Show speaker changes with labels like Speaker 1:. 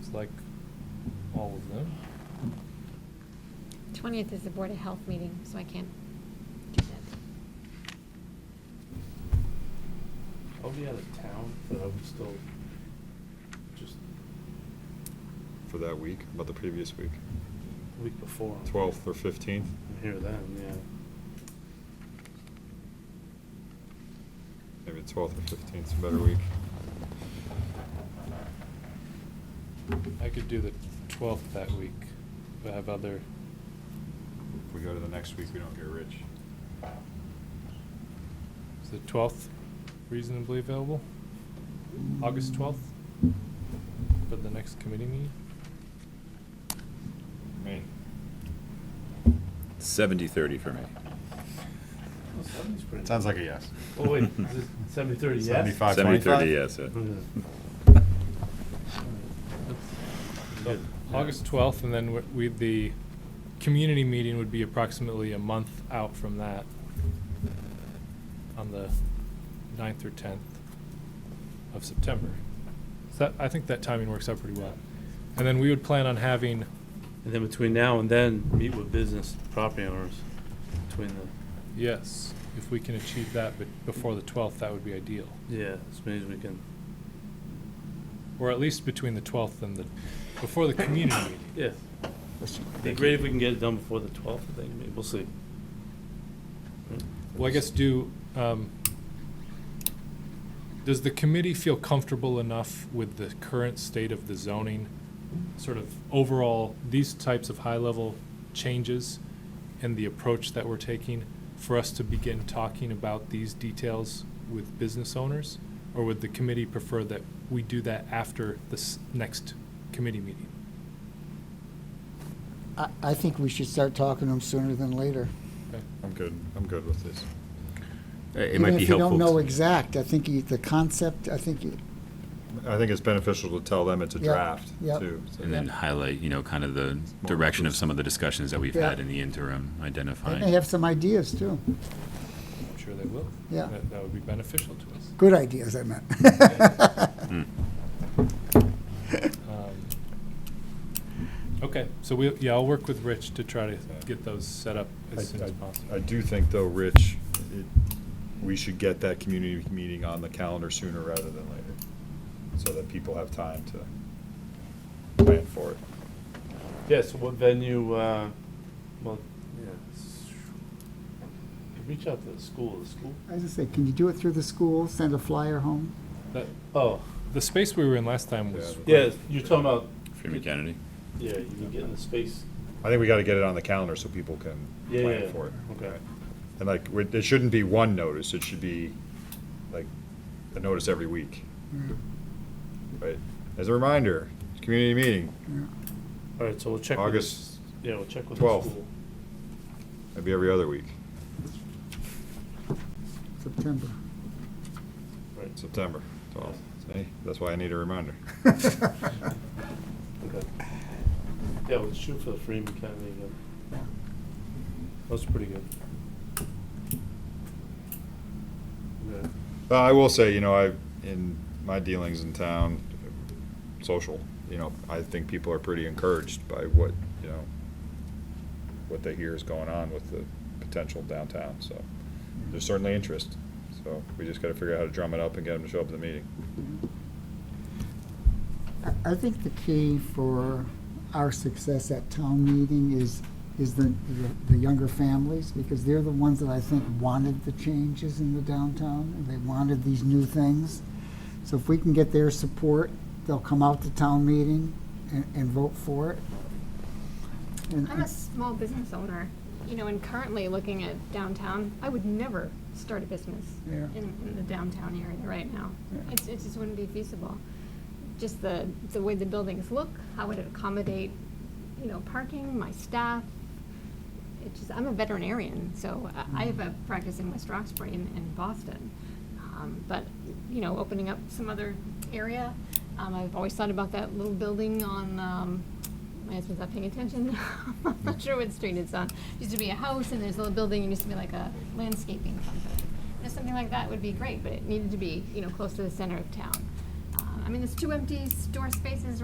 Speaker 1: It's like all of them.
Speaker 2: 20th is the Board of Health meeting, so I can't do that.
Speaker 3: I'll be out of town, but I'm still just
Speaker 4: for that week, about the previous week,
Speaker 3: week before.
Speaker 4: 12th or 15th.
Speaker 3: I'm here then, yeah.
Speaker 4: Maybe 12th or 15th is a better week.
Speaker 1: I could do the twelfth that week, but I have other,
Speaker 4: If we go to the next week, we don't get rich.
Speaker 1: is the twelfth reasonably available? August twelfth for the next committee meeting?
Speaker 4: Me.
Speaker 5: 70-30 for me.
Speaker 4: Sounds like a yes.
Speaker 3: Oh, wait, is it seventy thirty, yes?
Speaker 4: 75. 25?
Speaker 5: 70-30, yes,
Speaker 3: Okay.
Speaker 5: yeah.
Speaker 3: That's
Speaker 1: So
Speaker 3: good.
Speaker 1: August twelfth, and then w- we, the community meeting would be approximately a month out from that on the 9th or tenth of September. So that, I think that timing works out pretty well. And then we would plan on having,
Speaker 3: And then between now and then, meet with business property owners between the,
Speaker 1: yes, if we can achieve that, but before the twelfth, that would be ideal.
Speaker 3: yeah, as many as we can.
Speaker 1: Or at least between the twelfth and the, before the community meeting.
Speaker 3: Yeah. It'd be great if we can get it done before the twelfth, I think, maybe, we'll see.
Speaker 1: Well, I guess do, um, does the committee feel comfortable enough with the current state of the zoning? Sort of overall, these types of high-level changes and the approach that we're taking for us to begin talking about these details with business owners? Or would the committee prefer that we do that after this next committee meeting?
Speaker 6: I, I think we should start talking to them sooner than later.
Speaker 1: Okay.
Speaker 4: I'm good. I'm good with this.
Speaker 5: It might be helpful.
Speaker 6: Even if you don't know
Speaker 5: to-
Speaker 6: exact, I think you- the concept, I think, you-
Speaker 4: I think it's beneficial to tell them it's a
Speaker 6: Yep,
Speaker 4: draft,
Speaker 6: yep.
Speaker 4: too. so-
Speaker 5: And then highlight, you know, kind of the direction of some of the discussions that we've
Speaker 6: Yeah.
Speaker 5: had in the interim,
Speaker 6: they
Speaker 5: identifying.
Speaker 6: may have some ideas too.
Speaker 1: I'm sure they will.
Speaker 6: Yeah.
Speaker 1: That, that would be beneficial to us.
Speaker 6: Good ideas, I meant.
Speaker 5: Hmm.
Speaker 1: Um, Okay, so we, yeah, I'll work with Rich to try to get those set up
Speaker 4: I-
Speaker 1: as soon as
Speaker 4: I-
Speaker 1: possible.
Speaker 4: I do think, though, Rich, it- we should get that community meeting on the calendar sooner rather than later, so that people have time to plan for it.
Speaker 3: Yeah, so what venue, uh, well, yeah. s- you Reach out to the school, the school?
Speaker 6: I was just say, can you do it through the school, send a flyer home?
Speaker 1: That-
Speaker 3: Oh,
Speaker 1: The space we were in last time was,
Speaker 4: Yeah.
Speaker 3: yeah, you're talking about,
Speaker 5: Freeman Kennedy.
Speaker 3: yeah, you can get in the space.
Speaker 4: I think we got to get it on the calendar so people can
Speaker 3: Yeah, yeah,
Speaker 4: plan for it.
Speaker 3: okay.
Speaker 4: And like, we- it shouldn't be one notice, it should be like a notice every week. Right, as a reminder, community meeting,
Speaker 3: All right, so we'll check. with the
Speaker 4: August,
Speaker 3: s- Yeah, we'll check with the
Speaker 4: 12th.
Speaker 3: school.
Speaker 4: that'd be every other week,
Speaker 6: September.
Speaker 3: Right,
Speaker 4: September twelfth. See, that's why I need a reminder.
Speaker 3: okay. Yeah, we'll shoot for the Freeman County again. That's pretty good. Yeah.
Speaker 4: Uh, I will say, you know, I, in my dealings in town, social, you know, I think people are pretty encouraged by what, you know, what they hear is going on with the potential downtown, so there's certainly interest. So we just gotta figure out how to drum it up and get them to show up at the meeting.
Speaker 6: I- I think the key for our success at town meeting is, is the, the- the younger families, because they're the ones that I think wanted the changes in the downtown, and they wanted these new things. So if we can get their support, they'll come out to town meeting and, and vote for it. And-
Speaker 2: I'm a small business owner, you know, and currently looking at downtown, I would never start a business
Speaker 6: Yeah.
Speaker 2: in, in the downtown area right now.
Speaker 6: Yeah.
Speaker 2: It's, it just wouldn't be feasible. Just the, the way the buildings look, how would it accommodate, you know, parking, my staff? It just, I'm a veterinarian, so I- I have a practice in West Roxbury and, and Boston. Um, but, you know, opening up some other area, um, I've always thought about that little building on, um, my husband's not paying attention. I'm not sure what street it's on. Used to be a house and there's a little building and used to be like a landscaping company. You know, something like that would be great, but it needed to be, you know, close to the center of town. Uh, I mean, there's two empty store spaces